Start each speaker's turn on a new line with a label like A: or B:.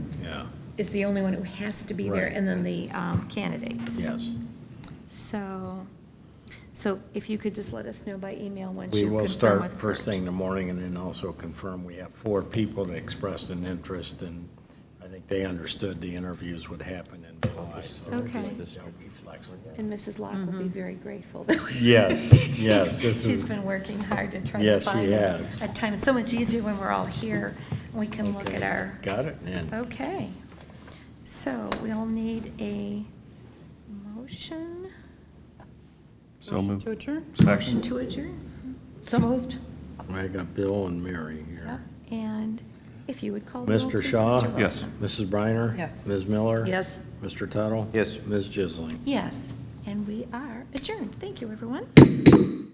A: is the only one who has to be there,
B: Right.
A: and then the um, candidates.
B: Yes.
A: So, so if you could just let us know by email once
B: We
A: you
B: will
A: confirm
B: start
A: with
B: first thing in
A: Kurt.
B: the morning and then also confirm we have four people that expressed an interest and I think they understood the interviews would happen in July. so
A: Okay.
B: they'll be flexible.
A: And Mrs. Locke will be very grateful. that we-
B: Yes, yes, this
A: She's
B: is-
A: been working hard to try to
B: Yes, she
A: find a
B: has.
A: a time. It's so much easier when we're all here, we can look at
B: Okay.
A: our. Oh.
B: Got it, and
A: Okay, so we'll need a motion.
C: So moved.
D: To adjourn?
A: Motion to adjourn.
D: So moved.
B: I got Bill and Mary here.
A: Yep, And if you would call the roll,
B: Mr.
A: please,
B: Shaw?
A: Mr. Wilson.
B: Mrs. Briner?
D: Yes.
B: Ms. Miller?
D: Yes.
B: Mr. Tuttle?
C: Yes.
B: Ms. Jisling?
A: Yes, and we are adjourned. Thank you, everyone.